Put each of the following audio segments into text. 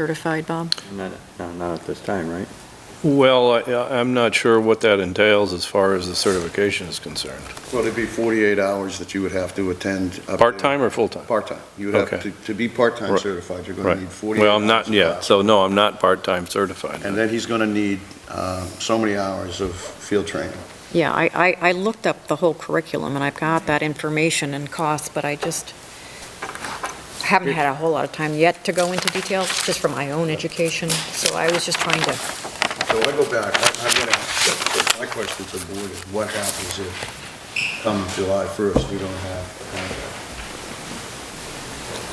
certified, Bob? Not, no, not at this time, right? Well, I- I'm not sure what that entails as far as the certification is concerned. Well, it'd be 48 hours that you would have to attend. up there. Part-time or full-time? Part-time. You would have, Okay. to to be part-time Right. certified, you're going Right. to need 48 hours. Well, I'm not, of yeah, class. so no, I'm not part-time certified. And then he's going to need uh, so many hours of field training. Yeah, I, I, I looked up the whole curriculum, and I've got that information and costs, but I just haven't had a whole lot of time yet to go into detail, just for my own education, so I was just trying to, So I go back, I- I'm going to, ask my question to the board is what happens if come July 1st, we don't have uh, a contract?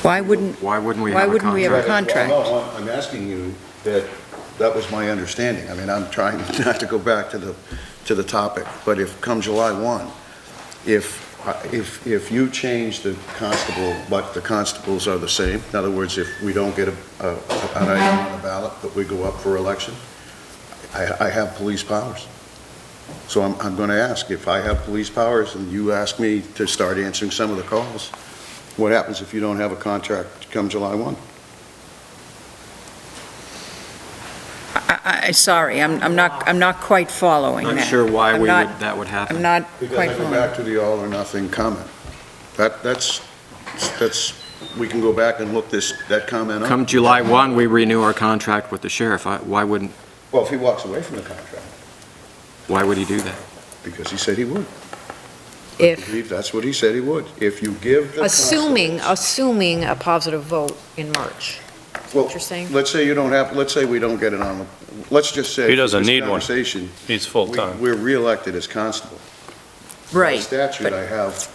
Why wouldn't, Why wouldn't we Why have a wouldn't we have a contract? contract. Well, no, I'm I'm asking you that, that was my understanding. I mean, I'm trying not to go back to the, to the topic, but if, come July 1, if, uh, if, if you change the constable, but the constables are the same, in other words, if we don't get a, a- an item on the ballot, but we go up for election, I, I have police powers. So I'm, I'm going to ask, if I have police powers and you ask me to start answering some of the calls, what happens if you don't have a contract come July 1? I, I- I, sorry, I'm, I'm not, I'm not quite following that. Not sure why I'm we would, not- that would I'm happen. not quite Because I go following. back to the all or nothing comment. That, that's, that's, we can go back and look this, that comment up. Come July 1, we renew our contract with the sheriff. I- Why wouldn't, Well, if he walks away from the contract, why would he do that? because he said he would. I if, believe that's what he said he would. If you give the. assuming, constables- assuming a positive vote in March. what you're saying? Well, let's say you don't have, let's say we don't get it on, the- let's just say. He doesn't this need one. Conversation, He's we- full-time. we're reelected as constable. By statute, I have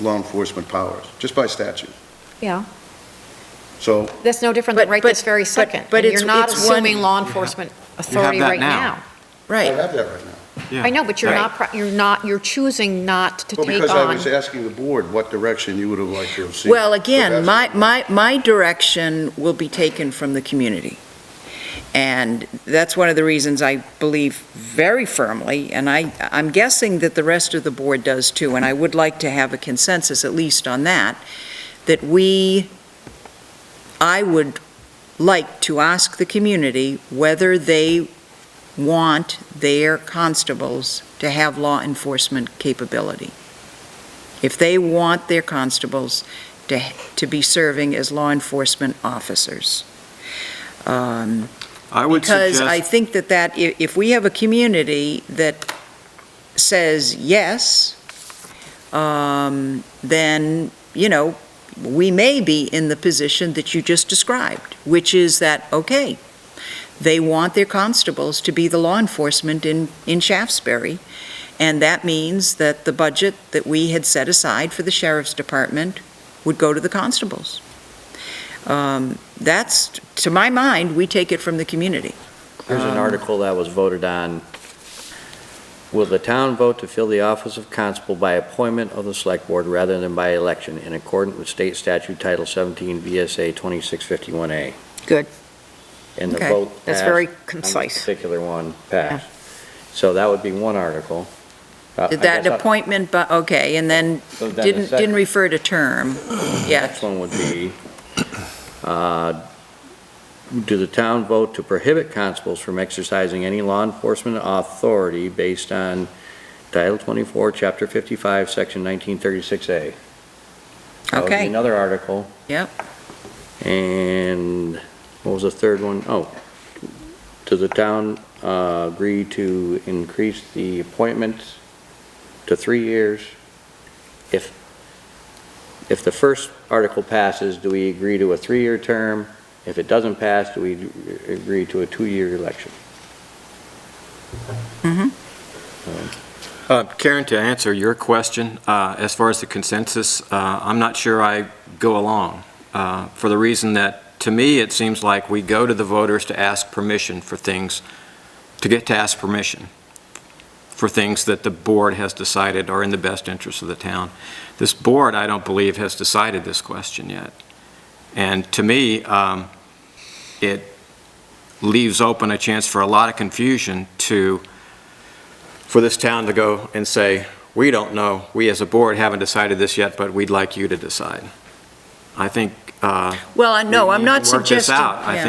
law enforcement powers, just by statute. Yeah. So That's no different than But- right this but- very but- second. but And it's- You're not it's one- assuming law enforcement authority that right now. now. I Right. have that right now. Yeah. I know, but you're Right. not, pro- you're not, you're choosing not to Well, take because I was on. asking the board what direction you would have liked to have seen. Well, So again, my, that's- my, my direction will be taken from the community. And that's one of the reasons I believe very firmly, and I, I'm guessing that the rest of the board does too, and I would like to have a consensus at least on that, that we, I would like to ask the community whether they want their constables to have law enforcement capability. If they want their constables to, to be serving as law enforcement officers. Um, I would Because I suggest, think that that, i- if we have a community that says yes, um, then, you know, we may be in the position that you just described, which is that, okay, they want their constables to be the law enforcement in, in Shaftesbury, and that means that the budget that we had set aside for the sheriff's department would go to the constables. Um, That's, to my mind, we take it from the community. There's an Um, article that was voted on. Will the town vote to fill the office of constable by appointment of the select board rather than by election in accordance with state statute Title 17 VSA 2651A? Good. And the Okay. vote passed. That's very on this concise. Particular one passed. So that would be one article. Uh, I Did that guess I- appointment, bu- okay, and then so then the didn't, second- didn't refer to term, yeah. Next one would be, uh, do the town vote to prohibit constables from exercising any law enforcement authority based on Title 24, Chapter 55, Section 1936A? That would be Okay. another article. Yep. And what was the third one? Oh, does the town uh, agree to increase the appointments to three years? If, if the first article passes, do we agree to a three-year term? If it doesn't pass, do we agree to a two-year election? Uh, Karen, to answer your question, uh, as far as the consensus, uh, I'm not sure I go along, uh, for the reason that, to me, it seems like we go to the voters to ask permission for things, to get to ask permission for things that the board has decided are in the best interest of the town. This board, I don't believe, has decided this question yet. And to me, um, it leaves open a chance for a lot of confusion to, for this town to go and say, we don't know, we as a board haven't decided this yet, but we'd like you to decide. I think, uh, Well, I- no, I'm We not need to work this suggesting. out. I yeah. think